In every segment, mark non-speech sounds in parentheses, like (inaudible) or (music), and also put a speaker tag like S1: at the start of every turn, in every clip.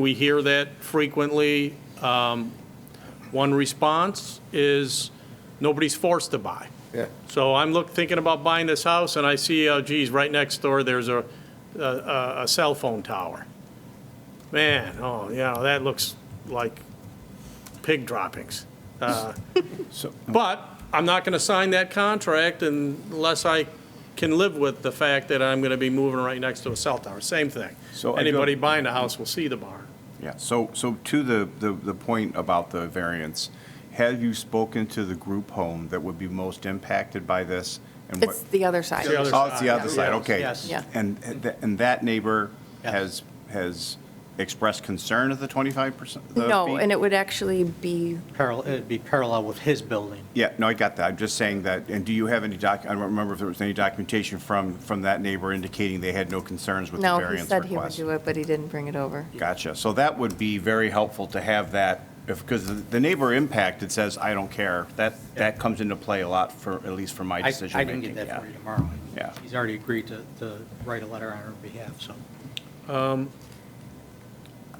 S1: We hear that frequently. Um, One response is, nobody's forced to buy.
S2: Yeah.
S1: So I'm look, thinking about buying this house, and I see, oh geez, right next door, there's a, a- a, a cell phone tower. Man, oh, yeah, that looks like pig droppings. Uh, But I'm not going to sign that contract unless I can live with the fact that I'm going to be moving right next to a cell tower, same thing.
S3: So I do-
S1: Anybody buying the house will see the barn.
S3: Yeah, so, so to the, the, the point about the variance, have you spoken to the group home that would be most impacted by this? and what-
S4: It's the other side.
S1: The other
S3: Oh, it's the
S1: side,
S3: other
S1: yeah.
S3: side, okay.
S1: Yes.
S4: Yeah.
S3: And, and th- and that neighbor
S1: Yes.
S3: has, has expressed concern at the twenty-five percent?
S4: No, and it would actually be,
S5: Parallel, it'd be parallel with his building.
S3: Yeah, no, I got that. I'm just saying that, and do you have any doc, I don't remember if there was any documentation from, from that neighbor indicating they had no concerns with the
S4: no, he
S3: variance request?
S4: said he would do it, but he didn't bring it over.
S3: Gotcha. So that would be very helpful to have that, if, because the neighbor impacted says, I don't care. That, that comes into play a lot for, at least for my
S5: I, I
S3: decision
S5: can
S3: making.
S5: get that for you
S3: Yeah.
S5: tomorrow.
S3: Yeah.
S5: He's already agreed to, to write a letter on our behalf, so.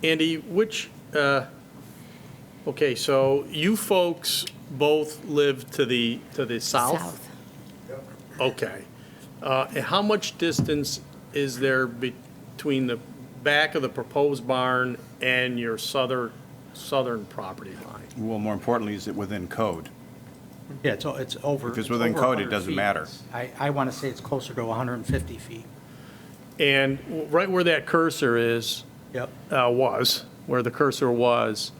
S1: Andy, which, uh, okay, so you folks both live to the, to the south? Okay. Uh, And how much distance is there between the back of the proposed barn and your southern, southern property line?
S3: Well, more importantly, is it within code?
S5: Yeah, it's, o- it's over.
S3: If it's within
S5: over
S3: code, it
S5: 100
S3: doesn't
S5: feet.
S3: matter.
S5: I, I want to say it's closer to 150 feet.
S1: And w- right where that cursor is,
S5: Yep.
S1: uh, was, where the cursor was.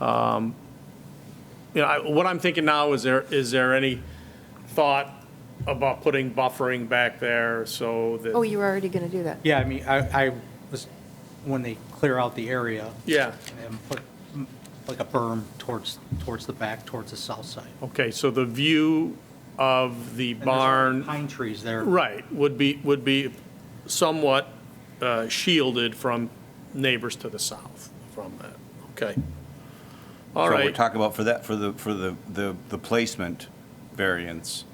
S1: um, You know, I- what I'm thinking now is there, is there any thought about putting buffering back there so that?
S4: Oh, you were already going to do that.
S5: Yeah, I mean, I, I was, when they clear out the area.
S1: Yeah,
S5: And put mm, like a berm towards, towards the back, towards the south side.
S1: okay, so the view of the
S5: And there's
S1: barn,
S5: Pine trees there.
S1: right, would be, would be somewhat uh, shielded from neighbors to the south from that, okay? All
S3: So
S1: right,
S3: we're talking about for that, for the, for the, the, the placement variance,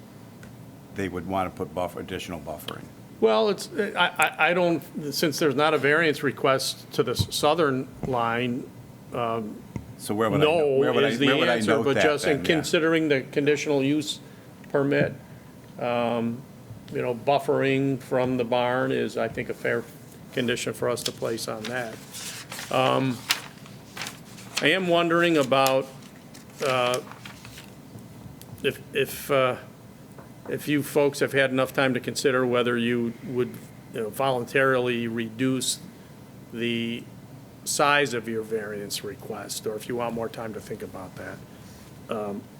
S3: they would want to put buffer, additional buffering.
S1: well, it's, I, I, I don't, since there's not a variance request to the southern line,
S3: So where would I? know-
S1: No
S3: where would I-
S1: is the
S3: where would I
S1: answer,
S3: note
S1: but
S3: that
S1: just in
S3: then? Yeah.
S1: considering the conditional use permit, um, you know, buffering from the barn is, I think, a fair condition for us to place on that. Um, I am wondering about uh, if, if, uh, if you folks have had enough time to consider whether you would you know, voluntarily reduce the size of your variance request, or if you want more time to think about that.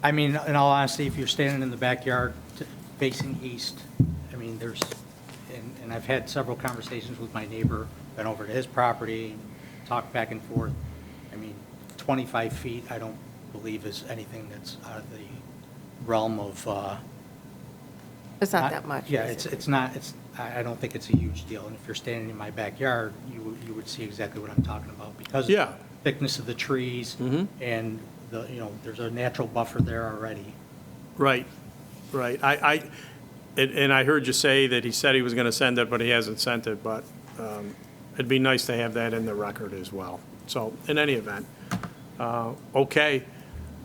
S5: I mean, in all honesty, if you're standing in the backyard t- facing east, I mean, there's, and, and I've had several conversations with my neighbor, been over to his property, talked back and forth. I mean, 25 feet, I don't believe is anything that's out of the realm of, uh.
S4: It's not that much.
S5: Yeah, it's, it's not, it's, I, I don't think it's a huge deal. And if you're standing in my backyard, you, would- you would see exactly what I'm talking about because of
S1: Yeah.
S5: the thickness of the trees and the, you know, there's a natural buffer there already.
S1: Right, right. I, I, and- and I heard you say that he said he was going to send it, but he hasn't sent it, but um, it'd be nice to have that in the record as well. So, in any event, uh, okay.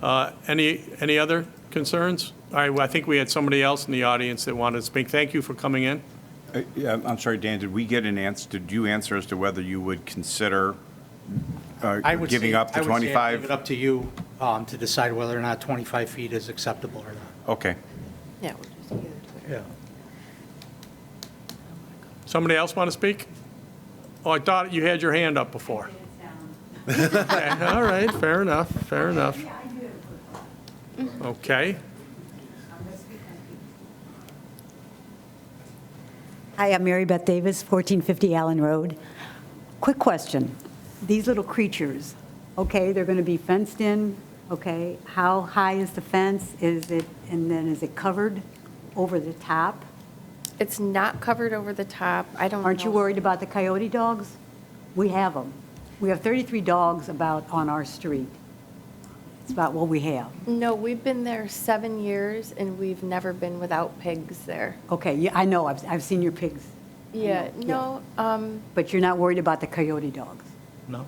S1: Uh, Any, any other concerns? All right, well, I think we had somebody else in the audience that wanted to speak. Thank you for coming in.
S3: Uh, Yeah, I'm sorry, Dan, did we get an answer, did you answer as to whether you would consider uh,
S5: I would
S3: giving
S5: say-
S3: up
S5: I
S3: the
S5: would say I'd Leave it
S3: 25?
S5: up to you um, to decide whether or not 25 feet is acceptable or not.
S3: Okay.
S4: Yeah, we'll just either do it.
S1: Somebody else want to speak? Oh, I thought you had your hand up before. Okay, (laughs) All right, fair enough, fair enough. Okay,
S6: Hi, I'm Mary Beth Davis, 1450 Allen Road. Quick question. These little creatures, okay, they're going to be fenced in, okay? How high is the fence? Is it, and then is it covered over the top?
S4: It's not covered over the top. I don't know.
S6: Aren't you worried about the coyote dogs? We have them. We have 33 dogs about on our street. It's about what we have.
S4: No, we've been there seven years and we've never been without pigs there.
S6: Okay, yeah, I know, I've, I've seen your pigs,
S4: Yeah,
S6: Yeah.
S4: no, um,
S6: but you're not worried about the coyote dogs?
S5: No?